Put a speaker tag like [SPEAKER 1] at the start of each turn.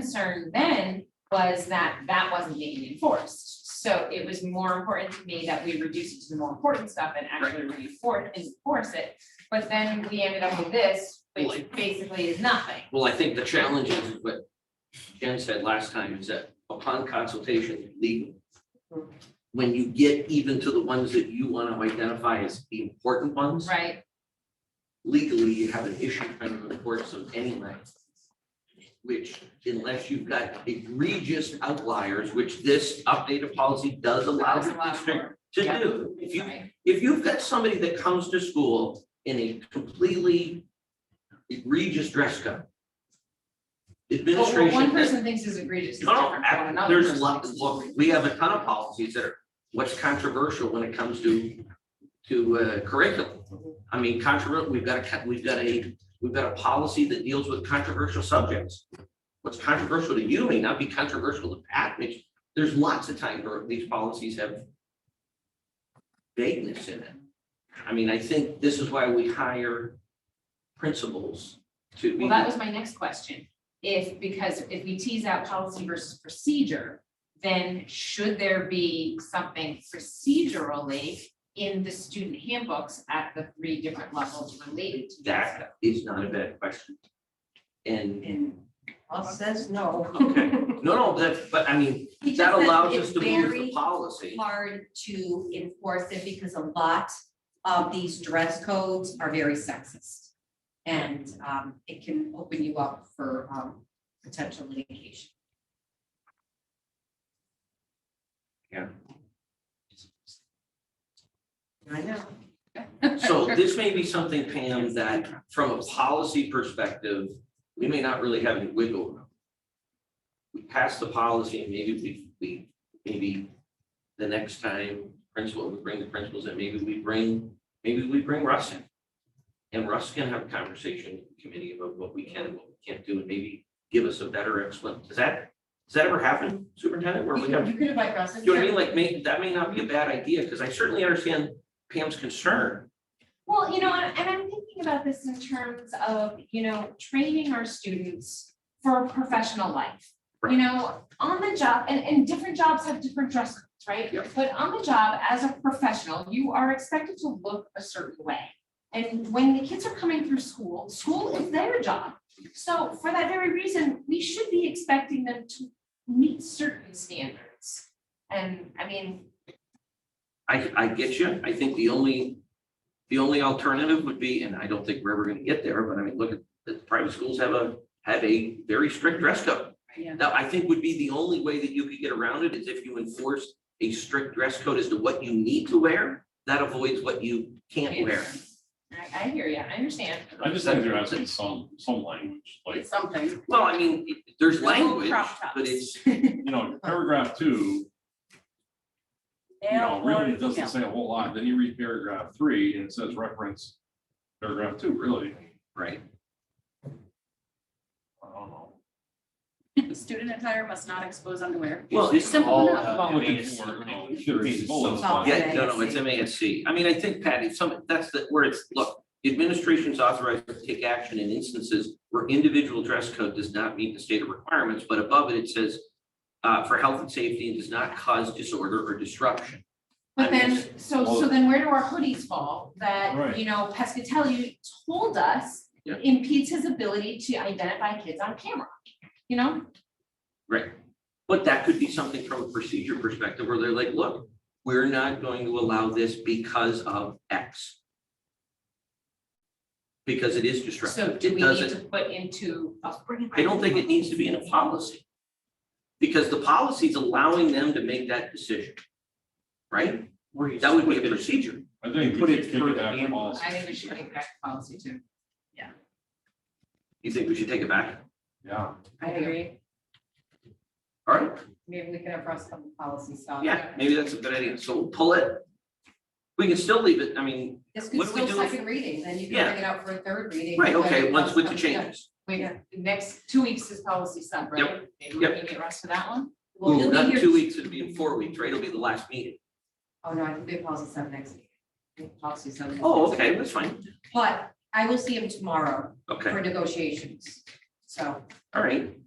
[SPEAKER 1] concern then was that that wasn't being enforced. So it was more important to me that we reduce it to the more important stuff and actually reinforce, enforce it. But then we ended up with this, which
[SPEAKER 2] Like-
[SPEAKER 1] basically is nothing.
[SPEAKER 2] Well, I think the challenge is what Jen said last time is that upon consultation with legal. When you get even to the ones that you want to identify as the important ones,
[SPEAKER 1] Right,
[SPEAKER 2] legally, you have an issue trying to enforce them anyway. Which unless you've got egregious outliers, which this updated policy does allow
[SPEAKER 1] that's a
[SPEAKER 2] the
[SPEAKER 1] lot
[SPEAKER 2] district
[SPEAKER 1] more,
[SPEAKER 2] to
[SPEAKER 1] yeah.
[SPEAKER 2] do. If you
[SPEAKER 1] right,
[SPEAKER 2] if you've got somebody that comes to school in a completely egregious dress code.
[SPEAKER 1] Well, what
[SPEAKER 2] Administration.
[SPEAKER 1] one person thinks is egregious is
[SPEAKER 2] No, no,
[SPEAKER 1] different from another
[SPEAKER 2] there's
[SPEAKER 1] person
[SPEAKER 2] a lot,
[SPEAKER 1] thinks is
[SPEAKER 2] look, we have a ton of policies that are, what's controversial when it comes to, to uh, curriculum. I mean, controversial, we've got a, co- we've got a, we've got a policy that deals with controversial subjects. What's controversial to you may not be controversial to Pat, which, there's lots of times where these policies have vagueness in it. I mean, I think this is why we hire principals to be.
[SPEAKER 1] Well, that was my next question. If, because if we tease out policy versus procedure, then should there be something procedurally in the student handbooks at the three different levels related to that?
[SPEAKER 2] That is not a bad question. And, and,
[SPEAKER 3] Well, says no.
[SPEAKER 2] okay, no, no, that, but I mean, that allows us to move the
[SPEAKER 3] It's
[SPEAKER 2] policy.
[SPEAKER 3] hard to enforce it because a lot of these dress codes are very sexist. And um, it can open you up for um, potential litigation.
[SPEAKER 2] Yeah.
[SPEAKER 3] I know.
[SPEAKER 2] So this may be something, Pam, that from a policy perspective, we may not really have any wiggle room. We pass the policy and maybe we, we, maybe the next time principal, we bring the principals in, maybe we bring, maybe we bring Russ in. And Russ can have a conversation with the committee about what we can, and what we can't do, and maybe give us a better explanation. Does that, does that ever happen, Superintendent, where we have?
[SPEAKER 3] You could invite Russ.
[SPEAKER 2] Do you know what I mean? Like, may, that may not be a bad idea, because I certainly understand Pam's concern.
[SPEAKER 1] Well, you know, and and I'm thinking about this in terms of, you know, training our students for professional life. You
[SPEAKER 2] Right.
[SPEAKER 1] know, on the job, and, and different jobs have different dress codes, right?
[SPEAKER 2] Yep.
[SPEAKER 1] But on the job, as a professional, you are expected to look a certain way. And when the kids are coming through school, school is their job. So for that very reason, we should be expecting them to meet certain standards. And I mean,
[SPEAKER 2] I, I get you. I think the only, the only alternative would be, and I don't think we're ever gonna get there, but I mean, look at, the private schools have a, have a very strict dress code.
[SPEAKER 3] Yeah.
[SPEAKER 2] Now, I think would be the only way that you could get around it is if you enforce a strict dress code as to what you need to wear. That avoids what you can't wear.
[SPEAKER 1] I, I hear you, I understand.
[SPEAKER 4] I just think there has to be some, some language, like,
[SPEAKER 3] Something.
[SPEAKER 2] Well, I mean, it- there's
[SPEAKER 1] There's no
[SPEAKER 2] language,
[SPEAKER 1] crop tops.
[SPEAKER 2] but it's,
[SPEAKER 4] you know, paragraph two, you know, really doesn't say a whole lot. Then you read paragraph three and it says reference paragraph two, really.
[SPEAKER 2] right,
[SPEAKER 4] I don't know.
[SPEAKER 5] Student attire must not expose underwear.
[SPEAKER 2] Well, it's
[SPEAKER 5] Simple
[SPEAKER 4] all-
[SPEAKER 5] enough.
[SPEAKER 4] I'm not looking for, you know, there's bullets, but-
[SPEAKER 2] yeah, no, no, it's MASC. I mean, I think Patty, some, that's the, where it's, look, the administration's authorized to take action in instances where individual dress code does not meet the stated requirements, but above it, it says uh, for health and safety and does not cause disorder or disruption.
[SPEAKER 1] But
[SPEAKER 2] Yes.
[SPEAKER 1] then, so, so
[SPEAKER 4] Well-
[SPEAKER 1] then where do our hoodies fall? That,
[SPEAKER 4] Right.
[SPEAKER 1] you know, Pescatelli told us
[SPEAKER 2] Yeah.
[SPEAKER 1] impedes his ability to identify kids on camera, you know?
[SPEAKER 2] But that could be something from a procedure perspective where they're like, look, we're not going to allow this because of X. Because it is
[SPEAKER 1] So
[SPEAKER 2] disruptive.
[SPEAKER 1] do
[SPEAKER 2] It
[SPEAKER 1] we need
[SPEAKER 2] doesn't,
[SPEAKER 1] to put into? a-
[SPEAKER 2] I don't think it needs to be in a policy. Because the policy is allowing them to make that decision. Right? That would be a procedure.
[SPEAKER 4] I think
[SPEAKER 2] Put
[SPEAKER 4] we
[SPEAKER 2] it
[SPEAKER 4] should kick
[SPEAKER 2] through
[SPEAKER 4] it
[SPEAKER 2] the
[SPEAKER 4] back to
[SPEAKER 2] handbook.
[SPEAKER 4] policy.
[SPEAKER 1] I think we should make that policy too.
[SPEAKER 2] You think we should take it back?
[SPEAKER 4] Yeah,
[SPEAKER 3] I agree.
[SPEAKER 2] All right,
[SPEAKER 3] Maybe we can have Russ come with policy stuff.
[SPEAKER 2] yeah, maybe that's a good idea. So we'll pull it. We can still leave it, I mean, What
[SPEAKER 3] This could
[SPEAKER 2] do we
[SPEAKER 3] still
[SPEAKER 2] do if-
[SPEAKER 3] second reading, then you
[SPEAKER 2] Yeah.
[SPEAKER 3] can bring it out for a third reading.
[SPEAKER 2] right,
[SPEAKER 3] when
[SPEAKER 2] okay,
[SPEAKER 3] it
[SPEAKER 2] once
[SPEAKER 3] comes
[SPEAKER 2] with the
[SPEAKER 3] up again.
[SPEAKER 2] changes.
[SPEAKER 1] Wait, the next two weeks is policy sub, right? Maybe we
[SPEAKER 2] yep.
[SPEAKER 1] can get Russ for that one?
[SPEAKER 3] Well,
[SPEAKER 2] Ooh,
[SPEAKER 3] you'll be
[SPEAKER 2] not
[SPEAKER 3] here-
[SPEAKER 2] two weeks, it'll be in four weeks, right? It'll be the last meeting.
[SPEAKER 3] Oh, no, I can do policy sub next week. I think Policy sub. next
[SPEAKER 2] Oh,
[SPEAKER 3] week.
[SPEAKER 2] okay, that's fine.
[SPEAKER 3] But I will see him tomorrow
[SPEAKER 2] Okay,
[SPEAKER 3] for negotiations, so.
[SPEAKER 2] all right.